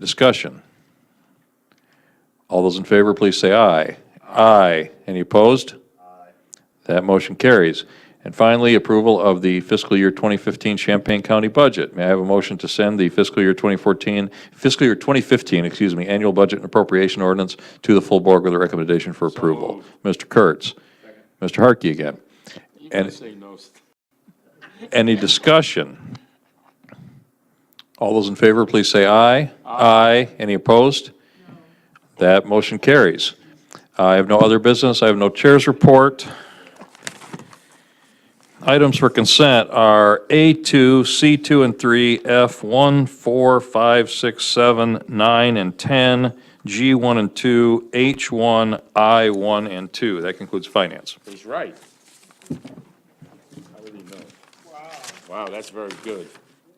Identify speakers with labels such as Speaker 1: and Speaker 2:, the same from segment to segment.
Speaker 1: Discussion. All those in favor, please say aye. Aye. Any opposed? That motion carries. And finally, approval of the fiscal year 2015 Champaign County budget. May I have a motion to send the fiscal year 2014, fiscal year 2015, excuse me, annual budget and appropriation ordinance to the full board with a recommendation for approval? Mr. Kurtz? Mr. Harkey again. And
Speaker 2: Say no.
Speaker 1: any discussion? All those in favor, please say aye. Aye. Any opposed? That motion carries. I have no other business. I have no chair's report. Items for consent are A2, C2 and 3, F1, 4, 5, 6, 7, 9, and 10, G1 and 2, H1, I1, and 2. That concludes finance.
Speaker 2: He's right. How would he know? Wow, that's very good.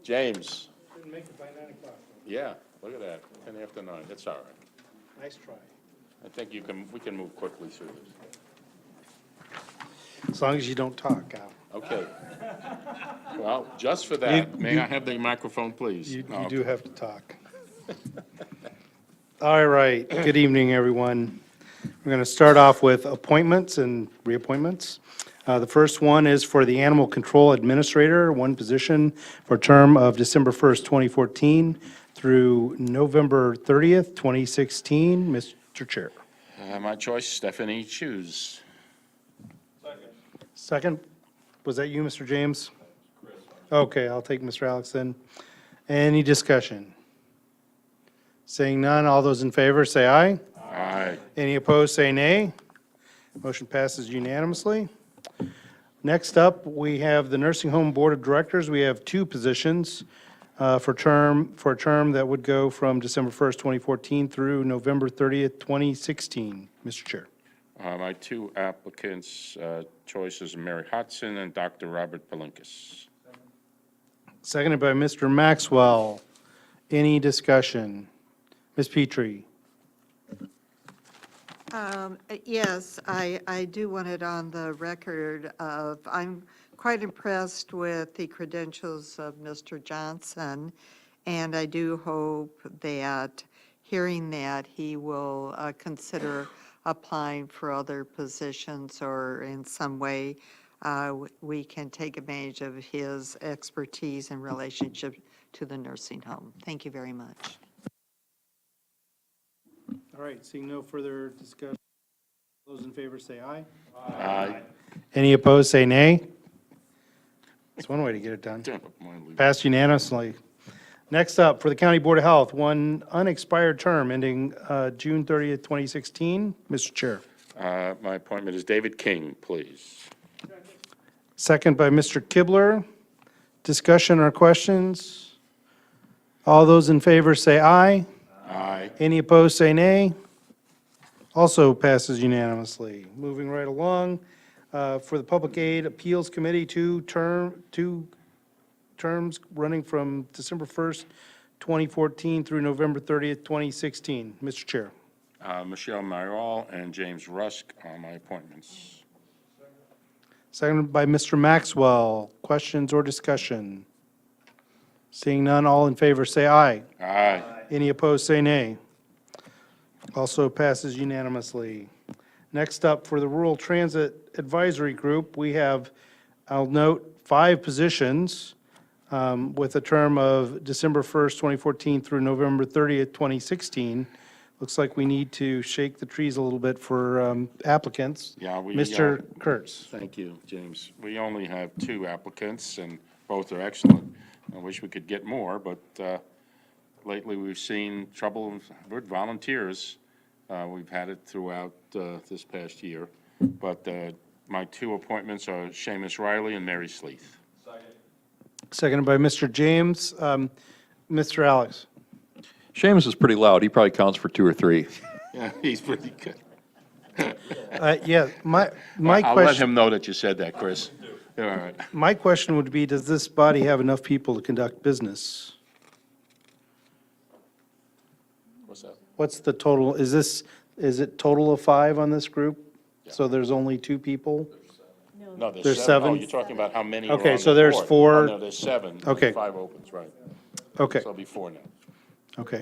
Speaker 2: James?
Speaker 3: Didn't make it by nine o'clock.
Speaker 2: Yeah, look at that, 10 after 9, that's all right.
Speaker 3: Nice try.
Speaker 2: I think you can, we can move quickly through this.
Speaker 3: As long as you don't talk, Al.
Speaker 2: Okay. Well, just for that, may I have the microphone, please? Oh,
Speaker 3: You, you
Speaker 2: No.
Speaker 3: do have to talk. All right, good evening, everyone. We're going to start off with appointments and reappointments. Uh, The first one is for the Animal Control Administrator, one position for term of December 1st, 2014 through November 30th, 2016. Mr. Chair.
Speaker 2: Uh, My choice, Stephanie Hughes.
Speaker 3: Second, was that you, Mr. James? Okay, I'll take Mr. Alex then. Any discussion? Seeing none, all those in favor say aye.
Speaker 2: Aye.
Speaker 3: Any opposed, say nay. Motion passes unanimously. Next up, we have the Nursing Home Board of Directors. We have two positions uh, for term, for a term that would go from December 1st, 2014 through November 30th, 2016. Mr. Chair.
Speaker 2: Uh, My two applicants, uh, choices, Mary Hudson and Dr. Robert Palinkas.
Speaker 3: Seconded by Mr. Maxwell. Any discussion? Ms. Petrie?
Speaker 4: Um, uh, Yes, I, I do want it on the record of, I'm quite impressed with the credentials of Mr. Johnson, and I do hope that, hearing that, he will uh, consider applying for other positions or in some way uh, w- we can take advantage of his expertise and relationship to the nursing home. Thank you very much.
Speaker 3: All right, seeing no further discussion, those in favor say aye.
Speaker 2: Aye.
Speaker 3: Any opposed, say nay. That's one way to get it done.
Speaker 2: Damn, mine leave.
Speaker 3: Passed unanimously. Next up, for the County Board of Health, one unexpired term ending uh, June 30th, 2016. Mr. Chair.
Speaker 2: Uh, My appointment is David King, please.
Speaker 3: Second by Mr. Kibler. Discussion or questions? All those in favor say aye.
Speaker 2: Aye.
Speaker 3: Any opposed, say nay. Also passes unanimously. Moving right along, uh, for the Public Aid Appeals Committee, two term, two terms running from December 1st, 2014 through November 30th, 2016. Mr. Chair.
Speaker 2: Uh, Michelle Marial and James Rusk are my appointments.
Speaker 3: Seconded by Mr. Maxwell. Questions or discussion? Seeing none, all in favor, say aye.
Speaker 2: Aye.
Speaker 3: Any opposed, say nay. Also passes unanimously. Next up, for the Rural Transit Advisory Group, we have, I'll note, five positions um, with a term of December 1st, 2014 through November 30th, 2016. Looks like we need to shake the trees a little bit for um, applicants.
Speaker 2: Yeah, we, uh,
Speaker 3: Mr. Kurtz.
Speaker 2: Thank you, James. We only have two applicants, and both are excellent. I wish we could get more, but uh, lately we've seen trouble with volunteers. Uh, We've had it throughout uh, this past year. But uh, my two appointments are Seamus Riley and Mary Sleeth.
Speaker 3: Seconded by Mr. James. Um, Mr. Alex.
Speaker 1: Seamus is pretty loud. He probably counts for two or three.
Speaker 2: Yeah, he's pretty good.
Speaker 3: Uh, Yeah, my, my
Speaker 2: I'll
Speaker 3: question.
Speaker 2: let him know that you said that, Chris. All right.
Speaker 3: My question would be, does this body have enough people to conduct business?
Speaker 2: What's that?
Speaker 3: What's the total, is this, is it total of five on this group? So there's only two people?
Speaker 2: No, there's seven.
Speaker 3: There's
Speaker 2: Oh,
Speaker 3: seven?
Speaker 2: you're talking about how many are
Speaker 3: Okay,
Speaker 2: on
Speaker 3: so
Speaker 2: the
Speaker 3: there's
Speaker 2: board.
Speaker 3: four-
Speaker 2: Oh, No, there's seven. There's
Speaker 3: Okay.
Speaker 2: Five opens, right. So
Speaker 3: Okay,
Speaker 2: it'll be four now.
Speaker 3: okay.